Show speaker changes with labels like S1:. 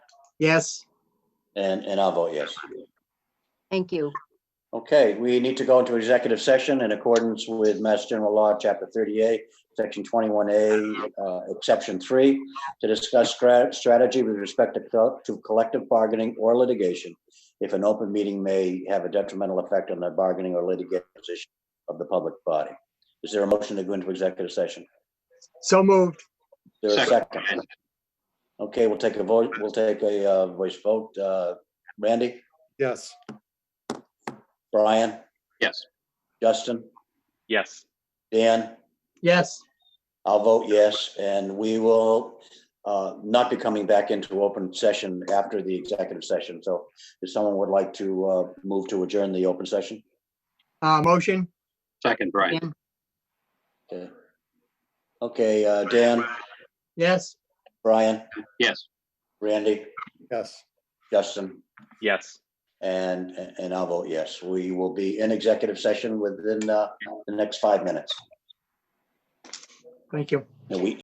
S1: Yes,
S2: And, and I'll vote yes.
S3: Thank you.
S2: Okay, we need to go into executive session in accordance with Mass General Law, Chapter 38, Section 21A, uh, Exception 3, to discuss stra- strategy with respect to co- to collective bargaining or litigation if an open meeting may have a detrimental effect on the bargaining or litigation position of the public body. Is there a motion to go into executive session?
S1: so moved.
S2: Is There a second? Okay, we'll take a vote, we'll take a uh, voice vote. Uh, Randy,
S4: Yes.
S2: Brian,
S5: Yes.
S2: Justin,
S5: Yes.
S2: Dan?
S1: Yes.
S2: I'll vote yes, and we will uh, not be coming back into open session after the executive session. So if someone would like to uh, move to adjourn the open session,
S1: Uh, motion?
S5: Second, Brian.
S2: okay. Okay, uh, Dan,
S1: Yes.
S2: Brian,
S5: Yes.
S2: Randy,
S4: Yes.
S2: Justin,
S5: Yes.
S2: and, and I'll vote yes. We will be in executive session within uh, the next five minutes.
S1: Thank you.
S2: And we,